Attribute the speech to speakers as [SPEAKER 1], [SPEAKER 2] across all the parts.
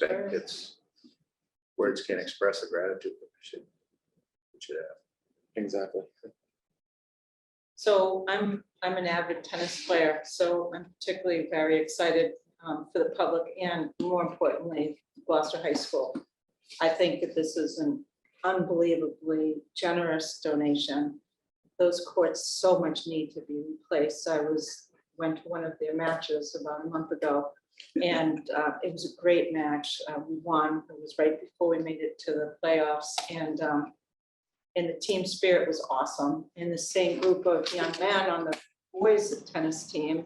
[SPEAKER 1] that it's, words can't express the gratitude uh, that we should, we should have.
[SPEAKER 2] Exactly.
[SPEAKER 3] So I'm, I'm an avid tennis player, so I'm particularly very excited um, for the public and more importantly, Gloucester High School. I think that this is an unbelievably generous donation. Those courts so much need to be replaced. I was, went to one of their matches about a month ago. And uh, it was a great match. Uh, We won. It was right before we made it to the playoffs and um, and the team spirit was awesome. And the same group of young men on the boys tennis team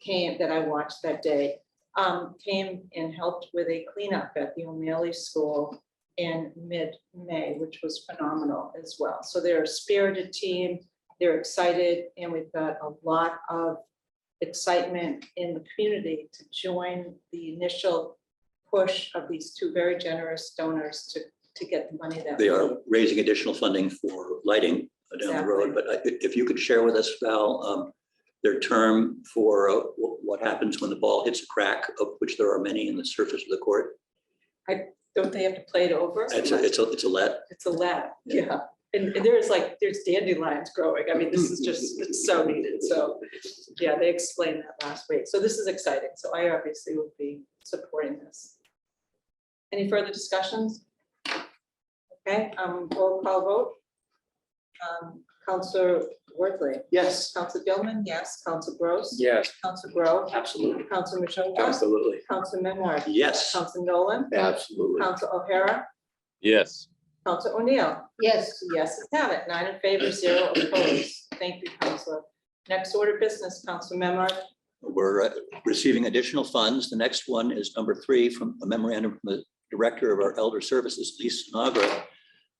[SPEAKER 3] came, that I watched that day, um, came and helped with a cleanup at the O'Malley School in mid-May, which was phenomenal as well. So they're a spirited team, they're excited, and we've got a lot of excitement in the community to join the initial push of these two very generous donors to, to get the money that.
[SPEAKER 4] They
[SPEAKER 3] we
[SPEAKER 4] are
[SPEAKER 3] need.
[SPEAKER 4] raising additional funding for lighting down the road, but I- if you could share with us, Val, um, their term for uh, wh- what happens when the ball hits a crack, of which there are many in the surface of the court.
[SPEAKER 3] Don't they have to play it over?
[SPEAKER 4] It's a, it's a, it's a let.
[SPEAKER 3] It's a lab,
[SPEAKER 4] Yeah.
[SPEAKER 3] yeah. And and there's like, there's dandelions growing. I mean, this is just, it's so needed. So, yeah, they explained that last week. So this is exciting. So I obviously will be supporting this. Any further discussions? Okay, um, roll call vote. Um, Counselor Worthley,
[SPEAKER 2] Yes.
[SPEAKER 3] Counselor Gilman, yes. Counselor Gross.
[SPEAKER 2] Yes.
[SPEAKER 3] Counselor Grow,
[SPEAKER 4] Absolutely.
[SPEAKER 3] Counselor Majota,
[SPEAKER 2] Absolutely.
[SPEAKER 3] Counselor Menard,
[SPEAKER 4] Yes,
[SPEAKER 3] Counselor Nolan,
[SPEAKER 1] Absolutely.
[SPEAKER 3] Counselor O'Hara,
[SPEAKER 5] Yes.
[SPEAKER 3] Counselor O'Neill.
[SPEAKER 6] yes,
[SPEAKER 3] Yes, it's have it, nine in favor, zero opposed. Thank you, Counselor. Next order of business, Counselor Memard.
[SPEAKER 4] we're uh, receiving additional funds. The next one is number three from a memorandum from the Director of our Elder Services, Lisa Nagra,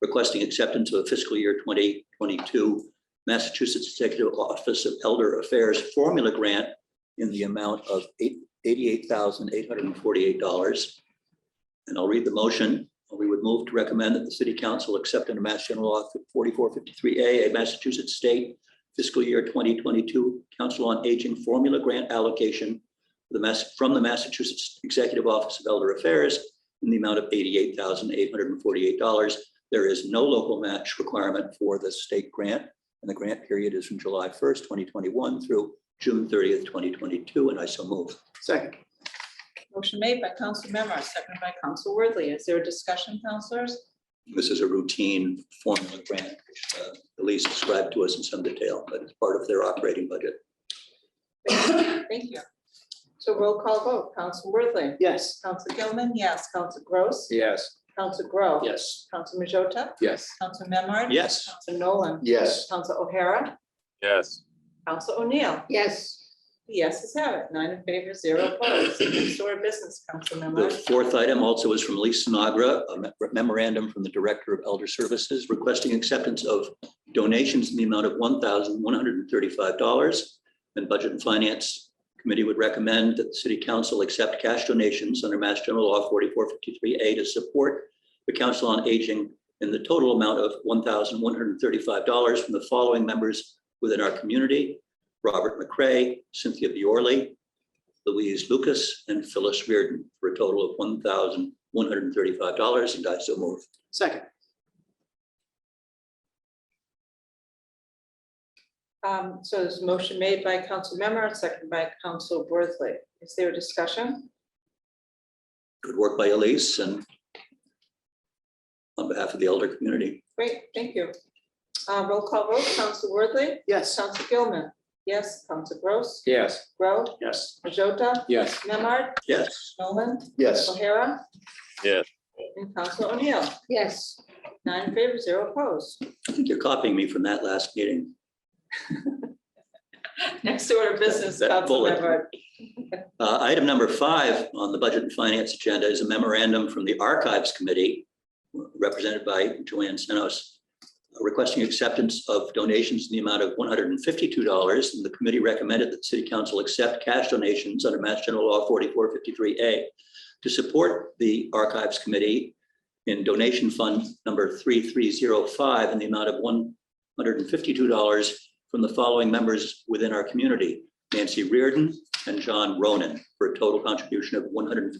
[SPEAKER 4] requesting acceptance of fiscal year 2022 Massachusetts Executive Office of Elder Affairs Formula Grant in the amount of eight- $88,848. And I'll read the motion. We would move to recommend that the City Council accept under Mass General Law 4453A, a Massachusetts State fiscal year 2022 Council on Aging Formula Grant Allocation for the Mass, from the Massachusetts Executive Office of Elder Affairs in the amount of $88,848. There is no local match requirement for the state grant, and the grant period is from July 1st, 2021 through June 30th, 2022, and I so move.
[SPEAKER 2] Second.
[SPEAKER 3] Motion made by Counselor Memard, seconded by Counselor Worthley. Is there a discussion, counselors?
[SPEAKER 4] This is a routine formula grant, which uh, Elise described to us in some detail, but it's part of their operating budget.
[SPEAKER 3] Thank you. So roll call vote, Counselor Worthley.
[SPEAKER 2] Yes.
[SPEAKER 3] Counselor Gilman, yes. Counselor Gross.
[SPEAKER 2] Yes.
[SPEAKER 3] Counselor Grow.
[SPEAKER 4] Yes.
[SPEAKER 3] Counselor Majota.
[SPEAKER 2] Yes.
[SPEAKER 3] Counselor Memard.
[SPEAKER 4] Yes.
[SPEAKER 3] Counselor Nolan.
[SPEAKER 1] Yes.
[SPEAKER 3] Counselor O'Hara.
[SPEAKER 5] Yes.
[SPEAKER 3] Counselor O'Neill.
[SPEAKER 6] yes,
[SPEAKER 3] Yes, it's have it, nine in favor, zero opposed. Next order of business, Counselor
[SPEAKER 4] The
[SPEAKER 3] Memard.
[SPEAKER 4] fourth item also is from Lisa Nagra, a me- memorandum from the Director of Elder Services requesting acceptance of donations in the amount of one thousand one hundred and thirty-five dollars. And Budget and Finance Committee would recommend that the City Council accept cash donations under Mass General Law forty-four fifty-three A to support the Council on Aging in the total amount of one thousand one hundred and thirty-five dollars from the following members within our community. Robert McCray, Cynthia Biorley, Louise Lucas and Phyllis Reardon for a total of one thousand one hundred and thirty-five dollars and I so move.
[SPEAKER 2] Second.
[SPEAKER 3] Um, so there's a motion made by council member, seconded by council Worthley. Is there a discussion?
[SPEAKER 4] Good work by Elise and on behalf of the elder community.
[SPEAKER 3] Great, thank you. Uh, roll call vote, council Worthley,
[SPEAKER 2] Yes.
[SPEAKER 3] council Gilman, yes, council Gross,
[SPEAKER 2] Yes.
[SPEAKER 3] Grow,
[SPEAKER 4] Yes.
[SPEAKER 3] Majota,
[SPEAKER 2] Yes.
[SPEAKER 3] Memard,
[SPEAKER 4] Yes.
[SPEAKER 3] Nolan,
[SPEAKER 1] Yes.
[SPEAKER 3] O'Hara.
[SPEAKER 5] Yes.
[SPEAKER 3] And council O'Neill,
[SPEAKER 6] yes.
[SPEAKER 3] nine in favor, zero opposed.
[SPEAKER 4] I think you're copying me from that last meeting.
[SPEAKER 3] Next order of business,
[SPEAKER 4] That
[SPEAKER 3] council
[SPEAKER 4] bullet.
[SPEAKER 3] member.
[SPEAKER 4] Uh, Item number five on the Budget and Finance agenda is a memorandum from the Archives Committee, represented by Joanne Senos, uh, requesting acceptance of donations in the amount of one hundred and fifty-two dollars. And the committee recommended that the city council accept cash donations under Mass General Law forty-four fifty-three A to support the Archives Committee in donation fund number three three zero five in the amount of one hundred and fifty-two dollars from the following members within our community, Nancy Reardon, and John Ronan for a total contribution of $152